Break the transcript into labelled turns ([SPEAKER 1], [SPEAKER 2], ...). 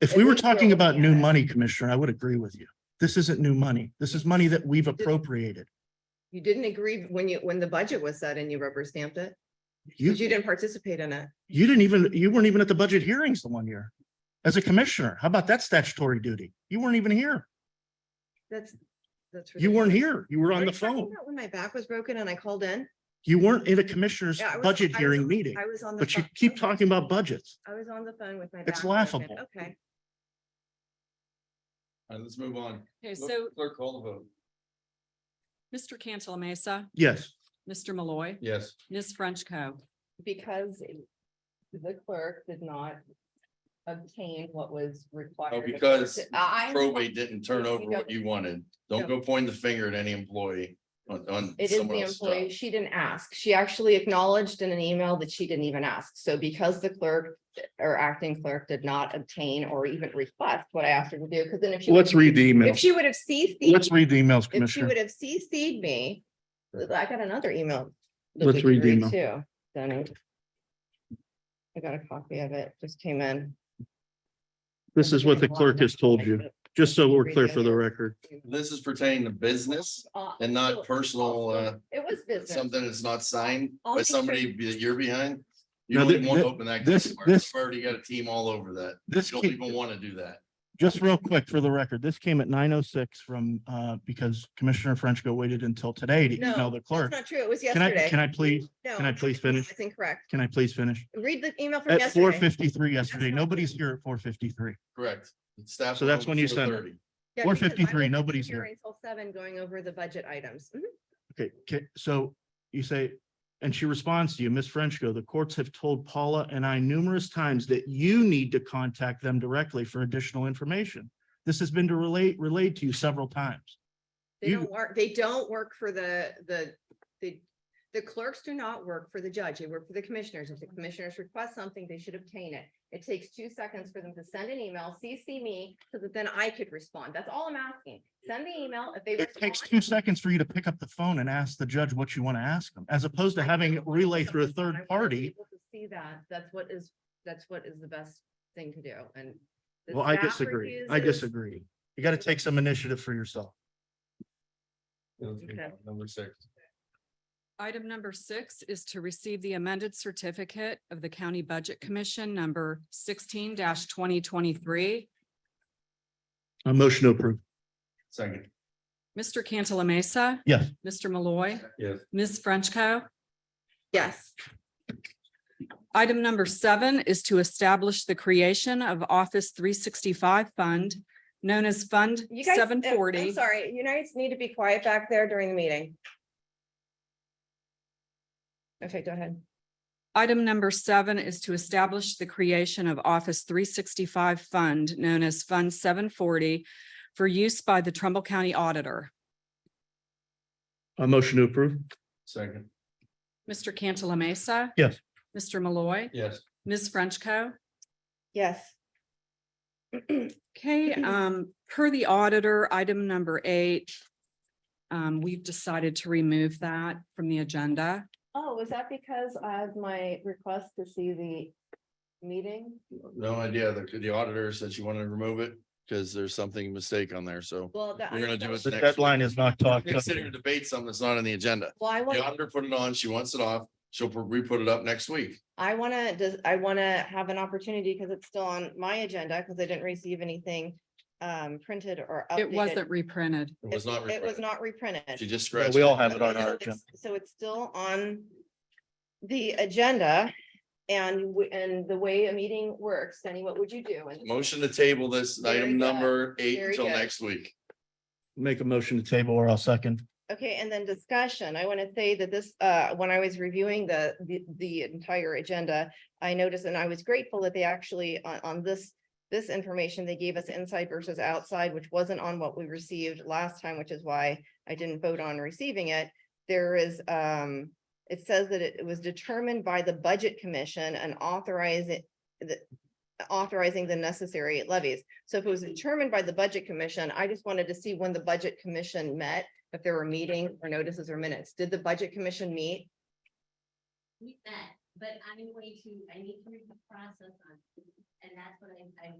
[SPEAKER 1] If
[SPEAKER 2] It
[SPEAKER 1] we were
[SPEAKER 2] is really
[SPEAKER 1] talking about new
[SPEAKER 2] looking at it.
[SPEAKER 1] money, Commissioner, I would agree with you. This isn't new money. This is money that we've appropriated.
[SPEAKER 2] You didn't agree when you, when the budget was set and you rubber stamped it,
[SPEAKER 1] You,
[SPEAKER 2] because you didn't participate in it.
[SPEAKER 1] you didn't even, you weren't even at the budget hearings the one year. As a commissioner, how about that statutory duty? You weren't even here.
[SPEAKER 2] That's, that's.
[SPEAKER 1] You weren't
[SPEAKER 2] ridiculous.
[SPEAKER 1] here. You were on
[SPEAKER 2] Are
[SPEAKER 1] the
[SPEAKER 2] you talking
[SPEAKER 1] phone.
[SPEAKER 2] about When my back was broken and I called in,
[SPEAKER 1] You weren't in a commissioner's
[SPEAKER 2] Yeah, I was-
[SPEAKER 1] budget
[SPEAKER 2] I was-
[SPEAKER 1] hearing meeting,
[SPEAKER 2] I was on the.
[SPEAKER 1] but you
[SPEAKER 2] phone-
[SPEAKER 1] keep talking about budgets.
[SPEAKER 2] I was on the phone with my.
[SPEAKER 1] It's
[SPEAKER 2] back broken.
[SPEAKER 1] laughable.
[SPEAKER 2] Okay.
[SPEAKER 3] All right, let's move on.
[SPEAKER 4] Okay, so
[SPEAKER 3] Clerk call the vote.
[SPEAKER 4] Mr. Cantala Mesa,
[SPEAKER 1] Yes,
[SPEAKER 4] Mr. Malloy,
[SPEAKER 3] Yes.
[SPEAKER 4] Ms. Frenchco.
[SPEAKER 2] Because the clerk did not obtain what was required.
[SPEAKER 3] Oh,
[SPEAKER 2] of her
[SPEAKER 3] because
[SPEAKER 2] to- I- I-
[SPEAKER 3] Probate didn't turn over what you wanted. Don't go pointing the finger at any employee on, on
[SPEAKER 2] It is
[SPEAKER 3] someone
[SPEAKER 2] the
[SPEAKER 3] else's
[SPEAKER 2] employee.
[SPEAKER 3] job.
[SPEAKER 2] She didn't ask. She actually acknowledged in an email that she didn't even ask. So because the clerk or acting clerk did not obtain or even request what I asked her to do, because then if she.
[SPEAKER 1] let's read the
[SPEAKER 2] If
[SPEAKER 1] emails.
[SPEAKER 2] she would have CC'd,
[SPEAKER 1] Let's read the emails,
[SPEAKER 2] if she
[SPEAKER 1] Commissioner.
[SPEAKER 2] would have CC'd me, I got another email. that
[SPEAKER 1] Let's
[SPEAKER 2] we can
[SPEAKER 1] read the email.
[SPEAKER 2] Too, then. it- I got a copy of it, just came in.
[SPEAKER 1] This is what the clerk has told you, just so we're clear for the record.
[SPEAKER 3] This is pertaining to business
[SPEAKER 2] Uh,
[SPEAKER 3] and not
[SPEAKER 2] so-
[SPEAKER 3] personal, uh,
[SPEAKER 2] It was business.
[SPEAKER 3] something that's not signed
[SPEAKER 2] I'll
[SPEAKER 3] by
[SPEAKER 2] make sure-
[SPEAKER 3] somebody that you're behind. You
[SPEAKER 1] Now,
[SPEAKER 3] don't
[SPEAKER 1] thi-
[SPEAKER 3] even want to
[SPEAKER 1] thi-
[SPEAKER 3] open that.
[SPEAKER 1] this-
[SPEAKER 3] can of worms.
[SPEAKER 1] this-
[SPEAKER 3] You've Already got a team all over that.
[SPEAKER 1] This,
[SPEAKER 3] You don't
[SPEAKER 1] ca-
[SPEAKER 3] even want to do that.
[SPEAKER 1] just real quick for the record, this came at nine oh six from, uh, because Commissioner Frenchco waited until today to
[SPEAKER 2] No,
[SPEAKER 1] email the
[SPEAKER 2] That's
[SPEAKER 1] clerk.
[SPEAKER 2] not true. It was
[SPEAKER 1] Can I,
[SPEAKER 2] yesterday.
[SPEAKER 1] can I please,
[SPEAKER 2] No,
[SPEAKER 1] can I please finish?
[SPEAKER 2] That's incorrect.
[SPEAKER 1] Can I please finish?
[SPEAKER 2] Read the email from
[SPEAKER 1] At four
[SPEAKER 2] yesterday.
[SPEAKER 1] fifty-three yesterday,
[SPEAKER 2] That's not-
[SPEAKER 1] nobody's here at four fifty-three.
[SPEAKER 3] Correct. Staff
[SPEAKER 1] So that's
[SPEAKER 3] will
[SPEAKER 1] when you
[SPEAKER 3] go
[SPEAKER 1] send it.
[SPEAKER 3] 4:30.
[SPEAKER 2] Yeah, because I
[SPEAKER 1] 4:53,
[SPEAKER 2] wasn't
[SPEAKER 1] nobody's here.
[SPEAKER 2] Until seven, going over the budget items. Mhm.
[SPEAKER 1] Okay, ca- so you say, and she responds to you, Ms. Frenchco, the courts have told Paula and I numerous times that you need to contact them directly for additional information. This has been to relate, relayed to you several times.
[SPEAKER 2] They
[SPEAKER 1] You-
[SPEAKER 2] don't work, they don't work for the, the, the, the clerks do not work for the judge. They work for the commissioners. If the commissioners request something, they should obtain it. It takes two seconds for them to send an email, CC me, so that then I could respond. That's all I'm asking. Send the email if they.
[SPEAKER 1] It takes
[SPEAKER 2] respond,
[SPEAKER 1] two seconds for you to pick up the phone and ask the judge what you want to ask them, as opposed to
[SPEAKER 2] I
[SPEAKER 1] having
[SPEAKER 2] know,
[SPEAKER 1] it relay
[SPEAKER 2] but
[SPEAKER 1] through a
[SPEAKER 2] I want
[SPEAKER 1] third
[SPEAKER 2] people
[SPEAKER 1] party.
[SPEAKER 2] to See that, that's what is, that's what is the best thing to do and. the
[SPEAKER 1] Well, I
[SPEAKER 2] staff
[SPEAKER 1] disagree. I
[SPEAKER 2] refuses-
[SPEAKER 1] disagree. You got to take some initiative for yourself.
[SPEAKER 2] Okay.
[SPEAKER 3] Number six.
[SPEAKER 4] Item number six is to receive the amended certificate of the County Budget Commission number sixteen twenty twenty-three.
[SPEAKER 1] A motion to approve.
[SPEAKER 3] Second.
[SPEAKER 4] Mr. Cantala Mesa.
[SPEAKER 1] Yes.
[SPEAKER 4] Mr. Malloy,
[SPEAKER 3] Yes.
[SPEAKER 4] Ms. Frenchco.
[SPEAKER 2] Yes,
[SPEAKER 4] Item number seven is to establish the creation of Office three sixty-five Fund, known as Fund
[SPEAKER 2] you guys.
[SPEAKER 4] seven
[SPEAKER 2] uh, I'm
[SPEAKER 4] forty.
[SPEAKER 2] Sorry, you guys need to be quiet back there during the meeting. Okay, go ahead.
[SPEAKER 4] Item number seven is to establish the creation of Office three sixty-five Fund known as Fund seven forty for use by the Trumbull County Auditor.
[SPEAKER 1] A motion to approve.
[SPEAKER 3] Second.
[SPEAKER 4] Mr. Cantala Mesa.
[SPEAKER 1] Yes.
[SPEAKER 4] Mr. Malloy,
[SPEAKER 3] Yes.
[SPEAKER 4] Ms. Frenchco.
[SPEAKER 2] Yes.
[SPEAKER 4] Okay, um, per the auditor, item number eight. Um, we've decided to remove that from the agenda.
[SPEAKER 2] Oh, was that because I have my request to see the meeting?
[SPEAKER 3] No idea. The, the auditor said she wanted to remove it because there's something mistake on there. So
[SPEAKER 2] Well, that.
[SPEAKER 3] We're gonna do it
[SPEAKER 1] The
[SPEAKER 3] Next.
[SPEAKER 1] deadline is not talked.
[SPEAKER 3] We're sitting here to debate something that's not on the agenda.
[SPEAKER 2] Well, I want.
[SPEAKER 3] The auditor put it on, she wants it off, she'll put- re-put it up next week.
[SPEAKER 2] I wanna, does, I wanna have an opportunity, because it's still on my agenda, because I didn't receive anything um printed or updated.
[SPEAKER 4] It wasn't reprinted.
[SPEAKER 3] It was not.
[SPEAKER 2] It was
[SPEAKER 3] reprinted.
[SPEAKER 2] not reprinted.
[SPEAKER 3] She just
[SPEAKER 1] Yeah,
[SPEAKER 3] scratched.
[SPEAKER 1] We all
[SPEAKER 3] it.
[SPEAKER 1] have it on
[SPEAKER 2] So
[SPEAKER 1] our agenda.
[SPEAKER 2] it's- So it's still on the agenda and, w- and the way a meeting works, Danny, what would you do? And-
[SPEAKER 3] Motion to table this
[SPEAKER 2] Very
[SPEAKER 3] item
[SPEAKER 2] good.
[SPEAKER 3] number eight
[SPEAKER 2] Very
[SPEAKER 3] until
[SPEAKER 2] good.
[SPEAKER 3] next week.
[SPEAKER 1] Make a motion to table or I'll second.
[SPEAKER 2] Okay, and then discussion. I want to say that this, uh, when I was reviewing the, the, the entire agenda, I noticed, and I was grateful that they actually, on, on this, this information, they gave us inside versus outside, which wasn't on what we received last time, which is why I didn't vote on receiving it. There is, um, it says that it was determined by the Budget Commission and authorize it, the, authorizing the necessary levies. So if it was determined by the Budget Commission, I just wanted to see when the Budget Commission met if there were meetings or notices or minutes. Did the budget commission meet?
[SPEAKER 5] meet that, but I'm going to, I need to read the process on, it, and that's what I'm, I'm